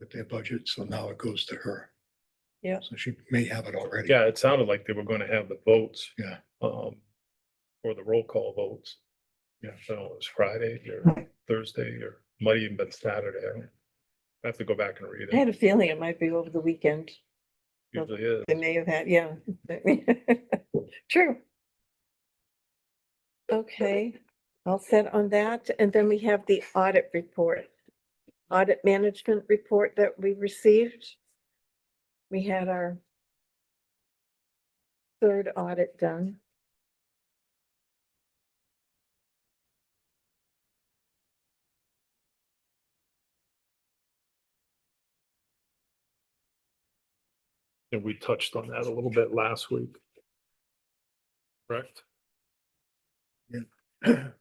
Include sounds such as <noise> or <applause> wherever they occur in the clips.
with their budget, so now it goes to her. Yeah. So she may have it already. Yeah, it sounded like they were gonna have the votes. Yeah. Um, or the roll call votes. Yeah, so it was Friday or Right. Thursday or might even been Saturday. I don't- I have to go back and read I had it. a feeling it might be over the weekend. Usually is. They may have had, yeah. <laughs> True. Okay, all set on that. And then we have the audit report. Audit management report that we received. We had our third audit done. And we touched on that a little bit last week. Correct? <clears throat>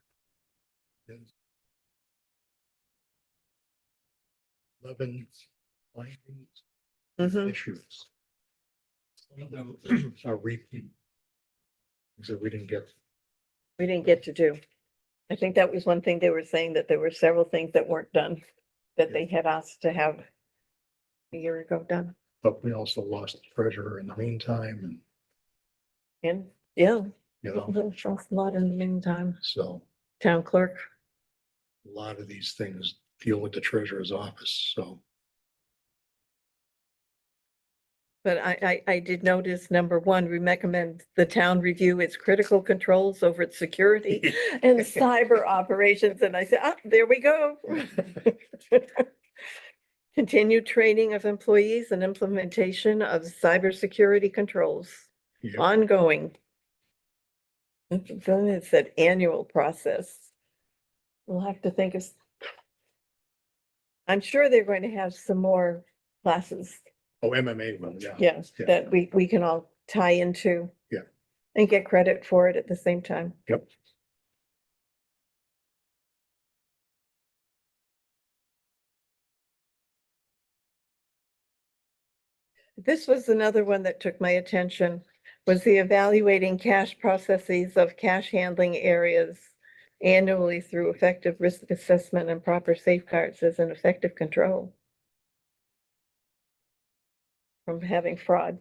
Yes. Eleven findings, Mm-hmm. issues. Some of them are repeat. So we didn't get, We didn't get to do. I think that was one thing they were saying, that there were several things that weren't done, that Yeah. they had asked to have a year ago done. but we also lost the treasurer in the meantime and, And, yeah, you know, that's a lot in the meantime. so Town clerk, a lot of these things deal with the treasurer's office, so. but I, I, I did notice, number one, we recommend the town review its critical controls over its security and cyber operations, and I said, ah, there we go. Continued training of employees and implementation of cybersecurity controls, yeah. ongoing. Then it said annual process. We'll have to think of. s- I'm sure they're going to have some more classes, Oh, MMA one, yeah. yes, Yeah. that we, we can all tie into. Yeah. And get credit for it at the same time. Yep. This was another one that took my attention, was the evaluating cash processes of cash handling areas annually through effective risk assessment and proper safeguards as an effective control from having fraud.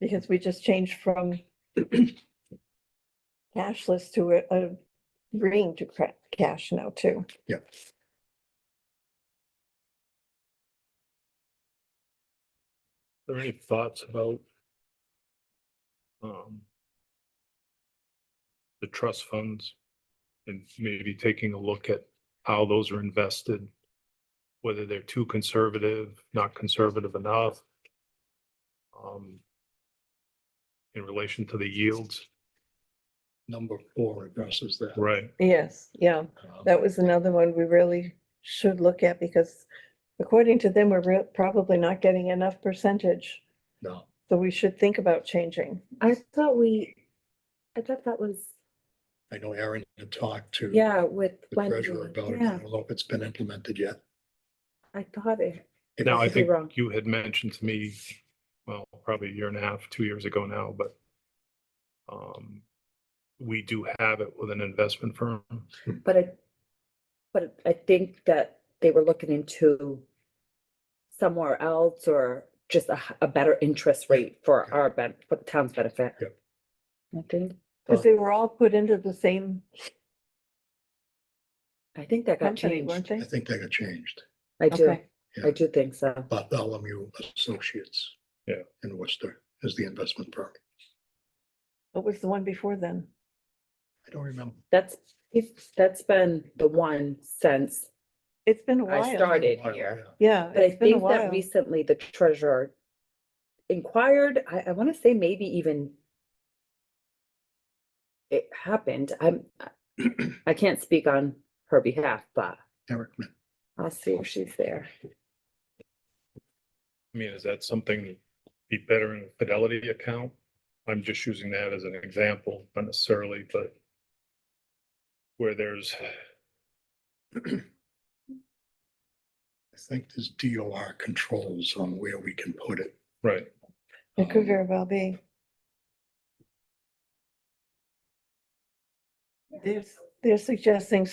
Because we just changed from <clears throat> cashless to a, a green to cra- cash now too. Yep. Are there any thoughts about um the trust funds and maybe taking a look at how those are invested? Whether they're too conservative, not conservative enough? Um, in relation to the yields. Number four addresses that. Right. Yes, yeah, Um, that was another one we really should look at because according to them, we're real- probably not getting enough percentage. No, So we should think about changing. I thought we, I thought that was, I know Aaron had talked to. yeah, with The Wendy. treasurer about it. I Yeah, don't know if it's been implemented yet. I thought it, It- Now, I could be think wrong. you had mentioned to me, well, probably a year and a half, two years ago now, but um, we do have it with an investment firm. but I, but I think that they were looking into somewhere else or just a, h- a better interest rate for Yeah. our, ben- for the town's benefit. Yep. I think, Because they were all put into the same I think that got company, weren't changed. they? I think that got changed, I do, Okay. I do think so. Bartholomew Associates. Yeah. In Worcester is the investment firm. What was the one before then? I don't remember. That's, if, that's been the one since It's been a while. I started While, here. yeah. Yeah. But I it's been a think that while. recently the treasurer inquired, I, I want to say maybe even it happened. I'm, <clears throat> I- I can't speak on her behalf, but Eric, Min- I'll see if she's there. I mean, is that something be better in a Fidelity account? I'm just using that as an example, not necessarily, but where there's, I think there's DOR controls on where we can put it. right, It could Um, very well be. They're, they're suggesting